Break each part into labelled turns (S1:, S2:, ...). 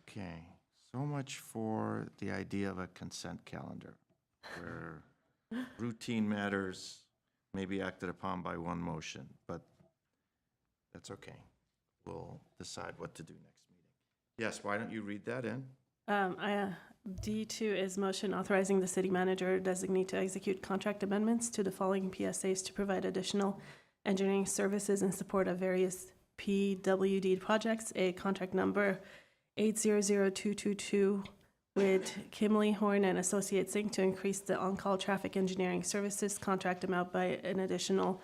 S1: Okay, so much for the idea of a consent calendar, where routine matters may be acted upon by one motion, but that's okay. We'll decide what to do next meeting. Yes, why don't you read that in?
S2: Um, I, uh, D2 is motion authorizing the city manager designate to execute contract amendments to the following PSAs to provide additional engineering services in support of various PWD projects, a contract number 800222 with Kimley Horn and Associates Inc. to increase the on-call traffic engineering services contract amount by an additional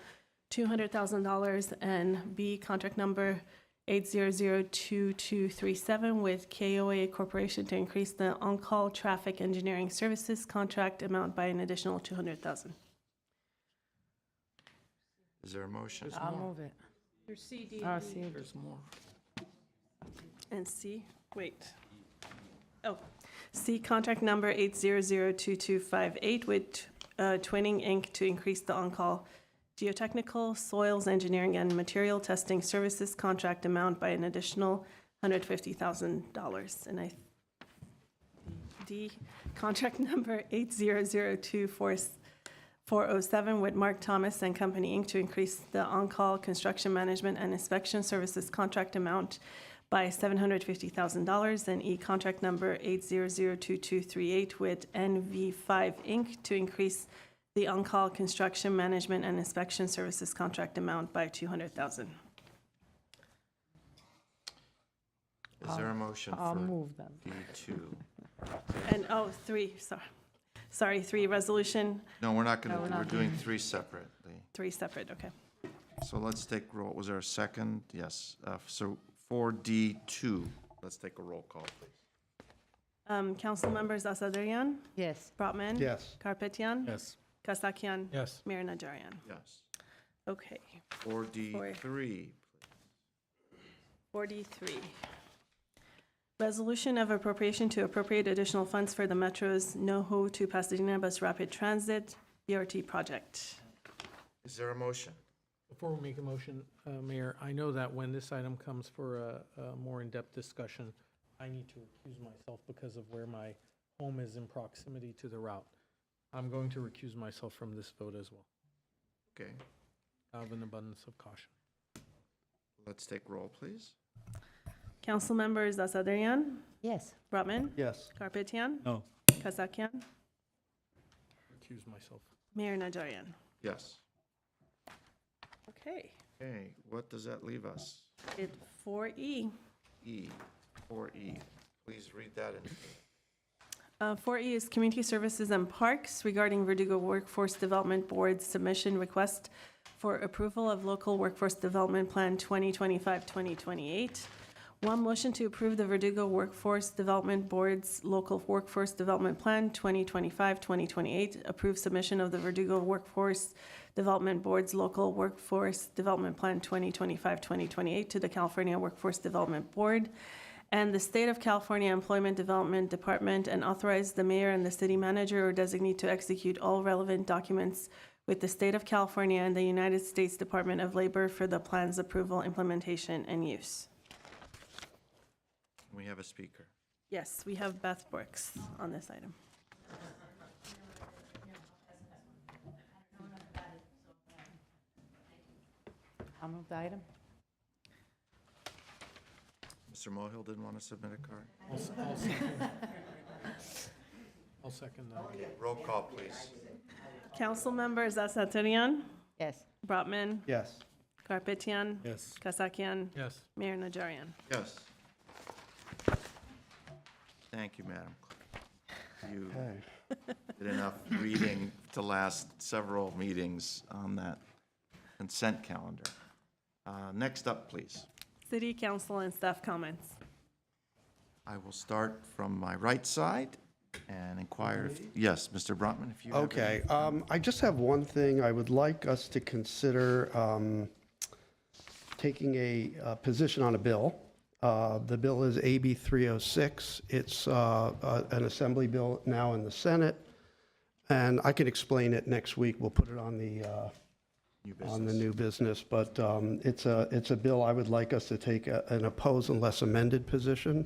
S2: $200,000, and B, contract number 8002237 with KOA Corporation to increase the on-call traffic engineering services contract amount by an additional 200,000.
S1: Is there a motion?
S3: I'll move it. There's CD. There's more.
S2: And C, wait. Oh, C, contract number 8002258 with uh, Twinning Inc. to increase the on-call geotechnical, soils engineering, and material testing services contract amount by an additional $150,000. And I, D, contract number 80024 407 with Mark Thomas and Company, Inc. to increase the on-call construction management and inspection services contract amount by $750,000 and E-contract number 8002238 with NV5, Inc. to increase the on-call construction management and inspection services contract amount by 200,000.
S1: Is there a motion
S3: I'll
S1: for
S3: move them.
S1: D2?
S2: And, oh, three, sorry, sorry, three, resolution,
S1: No, we're not going
S3: No, we're
S1: to, we're
S3: not.
S1: doing three separately.
S2: three separate, okay.
S1: So let's take roll, was there a second? Yes, uh, so for D2, let's take a roll call, please.
S2: Um, Council members Asadrian,
S3: Yes,
S2: Brotman.
S4: Yes.
S2: Karpetian.
S4: Yes.
S2: Kasakian.
S4: Yes.
S2: Mayor Najarian.
S1: Yes.
S2: Okay,
S1: 4D3,
S2: 43. Resolution of appropriation to appropriate additional funds for the Metro's NoHo to Pasadena Bus Rapid Transit BRT project.
S1: Is there a motion?
S5: Before we make a motion, uh, Mayor, I know that when this item comes for a, a more in-depth discussion, I need to recuse myself because of where my home is in proximity to the route. I'm going to recuse myself from this vote as well,
S1: Okay,
S5: out of an abundance of caution.
S1: let's take roll, please.
S2: Councilmembers Asadrian,
S3: yes.
S2: Brotman,
S4: Yes.
S2: Karpetian.
S4: No.
S2: Kasakian,
S5: Recuse myself.
S2: Mayor Najarian.
S1: Yes.
S2: Okay,
S1: Okay, what does that leave us?
S2: it 4E.
S1: E, 4E. Please read that in.
S2: Uh, 4E is Community Services and Parks regarding Verdugo Workforce Development Board's submission request for approval of local workforce development plan 2025-2028. One motion to approve the Verdugo Workforce Development Board's local workforce development plan 2025-2028. Approve submission of the Verdugo Workforce Development Board's local workforce development plan 2025-2028 to the California Workforce Development Board and the State of California Employment Development Department and authorize the mayor and the city manager or designate to execute all relevant documents with the State of California and the United States Department of Labor for the plan's approval, implementation, and use.
S1: We have a speaker.
S2: Yes, we have Beth Brooks on this item.
S3: I'll move the item.
S1: Mr. Mohill didn't want to submit a card?
S5: I'll, s- I'll second. I'll second that.
S1: Roll call, please.
S2: Council members Asatirian,
S3: Yes,
S2: Brotman,
S4: Yes.
S2: Karpetian,
S4: Yes.
S2: Kasakian,
S5: Yes,
S2: Mayor Najarian.
S1: Yes. Thank you, Madam Clerk. You did enough reading to last several meetings on that consent calendar. Uh, Next up, please.
S2: City Council and staff comments.
S1: I will start from my right side and inquire if, yes, Mr. Brotman, if you have. any-
S6: Okay, um, I just have one thing. I would like us to consider, um, taking a, uh position on a bill. Uh, the bill is AB three oh six. It's, uh, uh, an assembly bill now in the Senate. And I can explain it next week. We'll put it on the, uh, on the new business, but, um, it's a, it's a bill I would like us to take a- an oppose unless amended position.